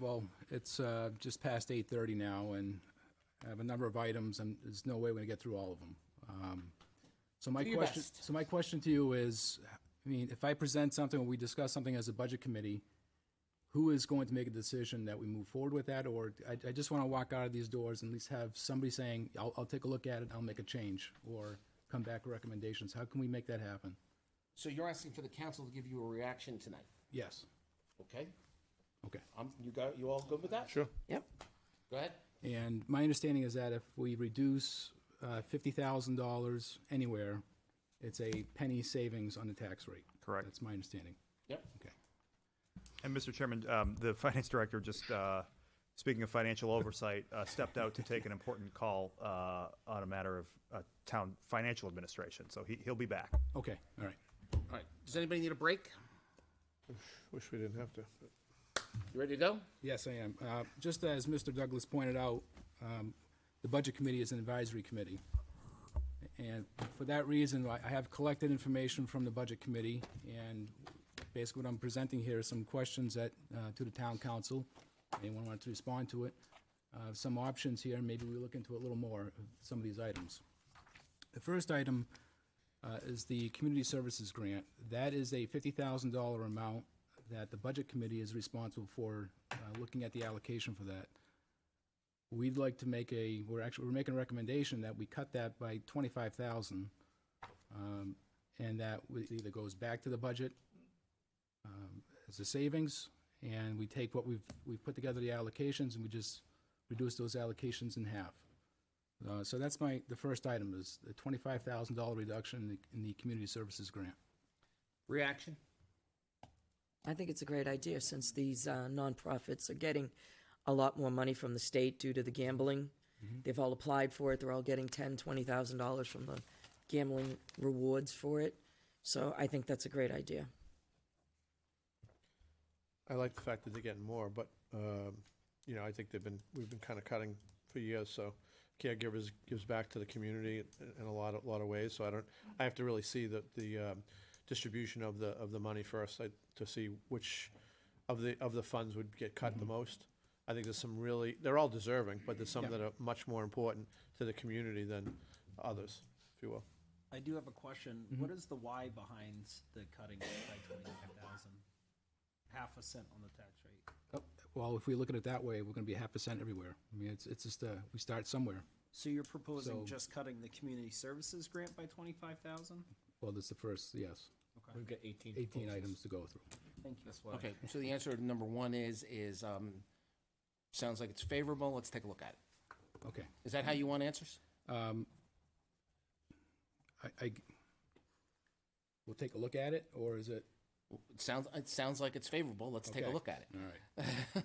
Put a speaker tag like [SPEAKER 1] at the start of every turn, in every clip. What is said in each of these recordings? [SPEAKER 1] Well, it's uh, just past 8:30 now, and I have a number of items, and there's no way we're going to get through all of them. Um, So my
[SPEAKER 2] Do your
[SPEAKER 1] question,
[SPEAKER 2] best.
[SPEAKER 1] so my question to you is, I mean, if I present something, or we discuss something as a budget committee, who is going to make a decision that we move forward with that? Or I I just want to walk out of these doors and at least have somebody saying, "I'll I'll take a look at it, I'll make a change," or come back with recommendations. How can we make that happen?
[SPEAKER 2] So you're asking for the council to give you a reaction tonight,
[SPEAKER 1] Yes,
[SPEAKER 2] okay?
[SPEAKER 1] okay.
[SPEAKER 2] Um, you got, you all good with that?
[SPEAKER 3] Sure.
[SPEAKER 4] Yep.
[SPEAKER 2] Go ahead.
[SPEAKER 1] And my understanding is that if we reduce uh, $50,000 anywhere, it's a penny savings on the tax rate.
[SPEAKER 5] Correct.
[SPEAKER 1] That's my understanding.
[SPEAKER 2] Yep.
[SPEAKER 1] Okay.
[SPEAKER 5] And Mr. Chairman, um, the finance director just, uh, speaking of financial oversight, uh, stepped out to take an important call, uh, on a matter of, uh, town financial administration. So he, he'll be back.
[SPEAKER 1] Okay, all right.
[SPEAKER 2] All right. Does anybody need a break?
[SPEAKER 3] Wish we didn't have to. but-
[SPEAKER 2] You ready to go?
[SPEAKER 1] Yes, I am. Uh, Just as Mr. Douglas pointed out, um, the Budget Committee is an advisory committee. And for that reason, I I have collected information from the Budget Committee, and basically what I'm presenting here is some questions that, uh, to the town council. Anyone want to respond to it? Uh, Some options here, maybe we look into a little more, of some of these items. The first item uh, is the Community Services Grant. That is a $50,000 amount that the Budget Committee is responsible for uh, looking at the allocation for that. We'd like to make a, we're actually, we're making a recommendation that we cut that by 25,000. um, And that we- it either goes back to the budget um, as a savings, and we take what we've, we've put together the allocations, and we just reduce those allocations in half. Uh, So that's my, the first item is the $25,000 reduction in the, in the community services grant.
[SPEAKER 2] Reaction?
[SPEAKER 4] I think it's a great idea since these uh, nonprofits are getting a lot more money from the state due to the gambling. They've all applied for it. They're all getting ten, twenty thousand dollars from the gambling rewards for it. So I think that's a great idea.
[SPEAKER 3] I like the fact that they're getting more, but, um, you know, I think they've been, we've been kind of cutting for years, so caregivers gives back to the community in- in a lot, of lot of ways, so I don't, I have to really see the, the um, distribution of the, of the money first, like, to see which of the, of the funds would get cut
[SPEAKER 2] Mm-hmm.
[SPEAKER 3] the most. I think there's some really, they're all deserving, but there's some that are much more important to the community than others, if you will.
[SPEAKER 6] I do have a question.
[SPEAKER 1] Mm-hmm.
[SPEAKER 6] What is the why behind the cutting it by twenty-five thousand? Half a cent on the tax rate.
[SPEAKER 1] Well, if we look at it that way, we're going to be half percent everywhere. I mean, it's, it's just, uh, we start somewhere.
[SPEAKER 6] So you're proposing
[SPEAKER 1] So-
[SPEAKER 6] just cutting the community services grant by twenty-five thousand?
[SPEAKER 1] Well, that's the first, yes,
[SPEAKER 6] Okay.
[SPEAKER 7] We've got 18.
[SPEAKER 1] 18 items to go through.
[SPEAKER 6] Thank you. That's why.
[SPEAKER 2] Okay, so the answer to number one is, is, um, sounds like it's favorable. Let's take a look at it.
[SPEAKER 1] Okay.
[SPEAKER 2] Is that how you want answers?
[SPEAKER 1] Um, I, I, we'll take a look at it, or is it?
[SPEAKER 2] It sounds, it sounds like it's favorable. Let's take a
[SPEAKER 1] okay,
[SPEAKER 2] look at it.
[SPEAKER 1] All right.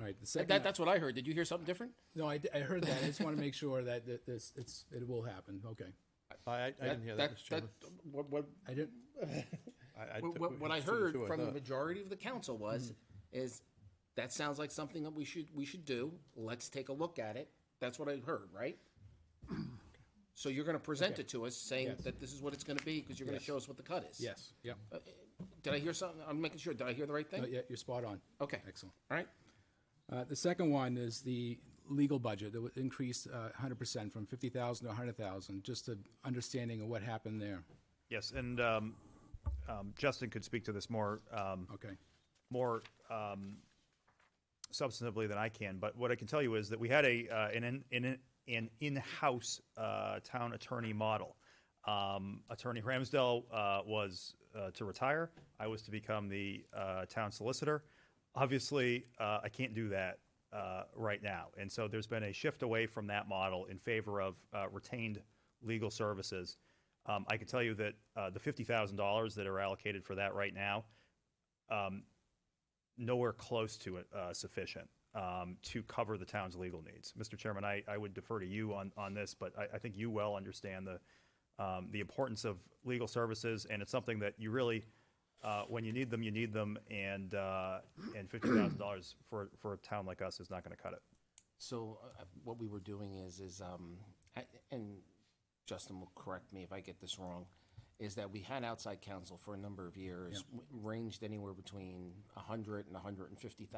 [SPEAKER 1] All right, the
[SPEAKER 2] That-
[SPEAKER 1] second.
[SPEAKER 2] That, that's what I heard. Did you hear something different?
[SPEAKER 1] No, I, d- I heard that. I just want to make sure that that this, it's, it will happen. Okay.
[SPEAKER 3] I, I I didn't hear that, Mr. Chairman.
[SPEAKER 2] What, what,
[SPEAKER 1] I didn't,
[SPEAKER 3] I- I
[SPEAKER 2] What,
[SPEAKER 3] took-
[SPEAKER 2] what, what I Mm-hmm.
[SPEAKER 3] it's two to
[SPEAKER 2] heard
[SPEAKER 3] two, I
[SPEAKER 2] from the
[SPEAKER 3] thought.
[SPEAKER 2] majority of the council was, is that sounds like something that we should, we should do. Let's take a look at it. That's what I heard, right? So you're gonna present it to us saying
[SPEAKER 1] Yes.
[SPEAKER 2] that this is what it's gonna be, because you're gonna show us what the cut is.
[SPEAKER 1] yes, yep.
[SPEAKER 2] Uh, Did I hear something? I'm making sure. Did I hear the right
[SPEAKER 1] No,
[SPEAKER 2] thing?
[SPEAKER 1] yeah, you're spot on.
[SPEAKER 2] Okay.
[SPEAKER 1] Excellent.
[SPEAKER 2] All right.
[SPEAKER 1] Uh, The second one is the legal budget that was increased uh, 100% from 50,000 to 100,000, just an understanding of what happened there.
[SPEAKER 5] Yes, and, um, um, Justin could speak to this more, um,
[SPEAKER 1] Okay.
[SPEAKER 5] more um, substantively than I can, but what I can tell you is that we had a uh, an in, an, an in-house uh, town attorney model. Um, attorney Ramsdell uh, was uh, to retire. I was to become the uh, town solicitor. Obviously, uh, I can't do that uh, right now, and so there's been a shift away from that model in favor of uh, retained legal services. Um, I can tell you that uh, the fifty thousand dollars that are allocated for that right now nowhere close to uh, sufficient um, to cover the town's legal needs. Mr. Chairman, I, I would defer to you on, on this, but I, I think you well understand the, um, the importance of legal services, and it's something that you really, uh, when you need them, you need them, and, uh, and $50,000 for, for a town like us is not going to cut it.
[SPEAKER 2] So uh, uh, what we were doing is, is, um, I- and Justin will correct me if I get this wrong, is that we had outside counsel for a number of years, w- ranged anywhere between 100 and 150,000